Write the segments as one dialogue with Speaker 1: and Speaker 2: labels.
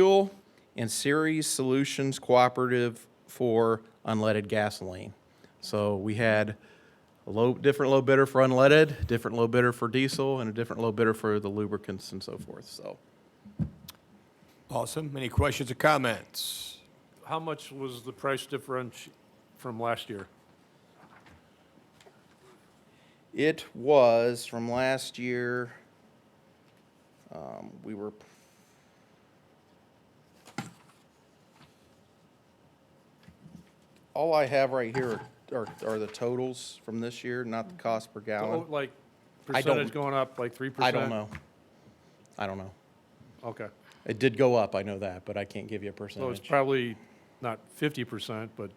Speaker 1: Fuel and Series Solutions Cooperative for unleaded gasoline. So we had a low, different low bidder for unleaded, different low bidder for diesel, and a different low bidder for the lubricants and so forth, so.
Speaker 2: Awesome. Any questions or comments?
Speaker 3: How much was the price difference from last year?
Speaker 1: It was from last year, um, we were. All I have right here are, are the totals from this year, not the cost per gallon.
Speaker 3: Oh, Like
Speaker 1: I don't-
Speaker 3: percentage going up, like three
Speaker 1: I
Speaker 3: percent?
Speaker 1: don't know. I don't know.
Speaker 3: Okay,
Speaker 1: It did go up, I know that, but I can't give
Speaker 2: Oh,
Speaker 1: you a
Speaker 3: so it's
Speaker 1: percentage.
Speaker 3: probably not fifty percent, but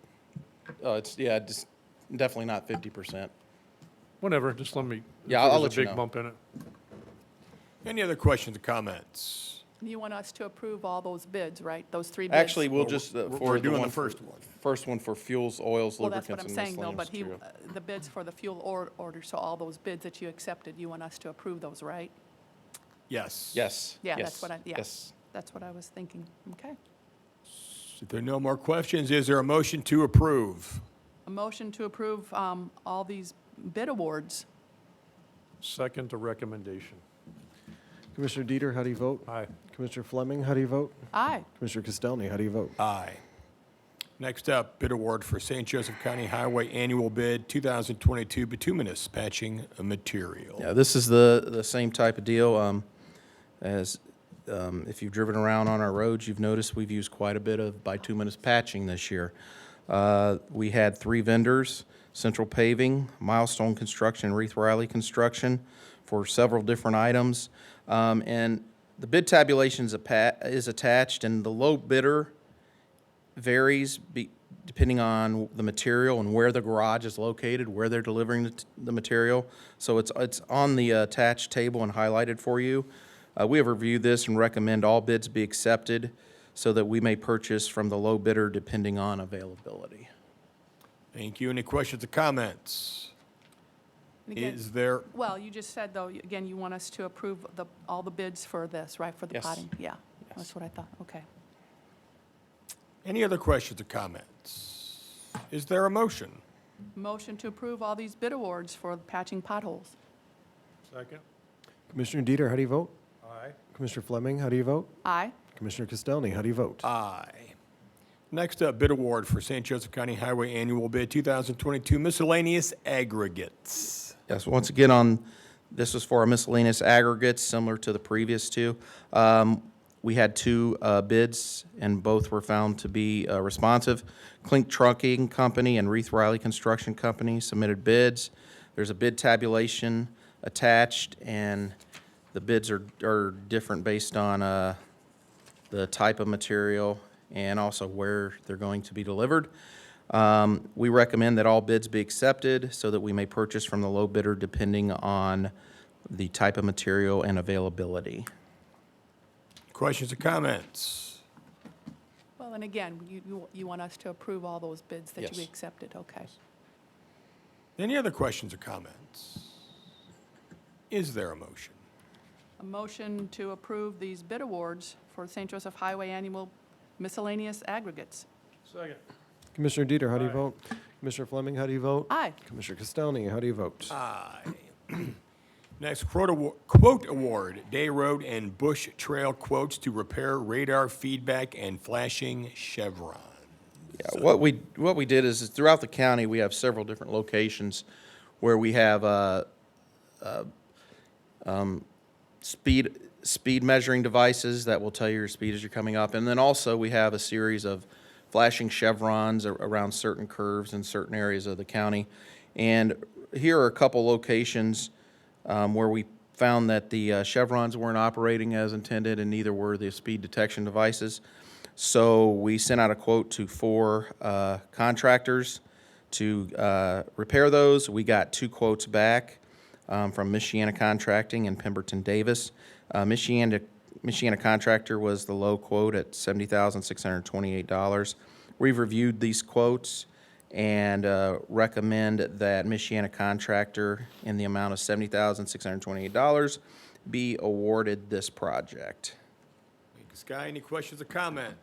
Speaker 1: Uh, it's, yeah, just definitely not fifty percent.
Speaker 3: whatever, just let me. if
Speaker 1: Yeah,
Speaker 3: there
Speaker 1: I'll
Speaker 3: was
Speaker 1: let you
Speaker 3: A
Speaker 1: know.
Speaker 3: big bump in it.
Speaker 2: Any other questions or comments?
Speaker 4: You want us to approve all those bids, right? Those three bids?
Speaker 1: Actually, we'll
Speaker 2: Well,
Speaker 1: just, uh,
Speaker 2: we're-
Speaker 1: for
Speaker 2: we're
Speaker 1: the
Speaker 2: doing
Speaker 1: one
Speaker 2: the
Speaker 1: for-
Speaker 2: first one.
Speaker 1: First one for fuels, oils,
Speaker 4: Well,
Speaker 1: lubricants,
Speaker 4: that's what I'm
Speaker 1: and
Speaker 4: saying, though, but
Speaker 1: miscellaneous
Speaker 4: he,
Speaker 1: material.
Speaker 4: uh, the bids for the fuel or- order, so all those bids that you accepted, you want us to approve those, right?
Speaker 2: Yes.
Speaker 1: Yes.
Speaker 4: Yeah, that's
Speaker 1: yes,
Speaker 4: what I- yeah.
Speaker 1: Yes.
Speaker 4: That's what I was thinking. Okay.
Speaker 2: If there are no more questions, is there a motion to approve?
Speaker 4: A motion to approve um, all these bid awards.
Speaker 3: Second to recommendation.
Speaker 5: Commissioner Dieter, how do you vote?
Speaker 3: Aye.
Speaker 5: Commissioner Fleming, how do you vote?
Speaker 4: Aye.
Speaker 5: Commissioner Castelny, how do you vote?
Speaker 2: Aye. Next up, bid award for St. Joseph County Highway Annual Bid 2022 Bituminous Patching Material.
Speaker 1: Yeah, this is the, the same type of deal. Um, as, um, if you've driven around on our roads, you've noticed we've used quite a bit of bituminous patching this year. Uh, we had three vendors, Central Paving, Milestone Construction, and Reeve Riley Construction, for several different items. Um, and the bid tabulation is a is attached, and the low bidder varies be, depending on the material and where the garage is located, where they're delivering the, t- the material. So it's, it's on the attached table and highlighted for you. Uh, we have reviewed this and recommend all bids be accepted so that we may purchase from the low bidder depending on availability.
Speaker 2: Thank you. Any questions or comments?
Speaker 4: And again-
Speaker 2: Is there,
Speaker 4: Well, you just said, though, you- again, you want us to approve the, all the bids for this, right, for the
Speaker 1: Yes.
Speaker 4: potting? Yeah, that's what I thought. Okay.
Speaker 2: any other questions or comments? Is there a motion?
Speaker 4: Motion to approve all these bid awards for patching potholes.
Speaker 3: Second?
Speaker 5: Commissioner Dieter, how do you vote?
Speaker 3: Aye.
Speaker 5: Commissioner Fleming, how do you vote?
Speaker 4: Aye.
Speaker 5: Commissioner Castelny, how do you vote?
Speaker 2: Aye. Next up, bid award for St. Joseph County Highway Annual Bid 2022 Miscellaneous Aggregates.
Speaker 1: Yes, once again, on, this was for our miscellaneous aggregates, similar to the previous two. Um, We had two uh, bids, and both were found to be uh, responsive. Clink Trucking Company and Reith Riley Construction Company submitted bids. There's a bid tabulation attached, and the bids are, are different based on uh, the type of material, and also where they're going to be delivered. Um, We recommend that all bids be accepted so that we may purchase from the low bidder depending on the type of material and availability.
Speaker 2: Questions or comments?
Speaker 4: Well, and again, you, you, you want us to approve all those bids that you
Speaker 1: Yes.
Speaker 4: accepted, okay.
Speaker 2: Any other questions or comments? Is there a motion?
Speaker 4: A motion to approve these bid awards for St. Joseph Highway Annual Miscellaneous Aggregates.
Speaker 3: Second.
Speaker 5: Commissioner Dieter, how do you vote? Commissioner Fleming, how do you vote?
Speaker 4: Aye.
Speaker 5: Commissioner Castelny, how do you vote?
Speaker 2: Next, quote award, quote award, Day Road and Bush Trail quotes to repair radar feedback and flashing chevron.
Speaker 1: Yeah, what we, what we did is is throughout the county, we have several different locations where we have uh, speed speed measuring devices that will tell you your speed as you're coming up. And then also we have a series of flashing chevrons ar- around certain curves in certain areas of the county. And here are a couple locations um, where we found that the uh, chevrons weren't operating as intended and neither were the speed detection devices. So we sent out a quote to four uh, contractors to uh, repair those. We got two quotes back um, from Michiana Contracting and Pemberton Davis. Uh, Michiana, Michiana Contractor was the low quote at $70,628. We've reviewed these quotes and uh, recommend that Michiana Contractor in the amount of $70,628 be awarded this project.
Speaker 2: Sky, any questions or comment?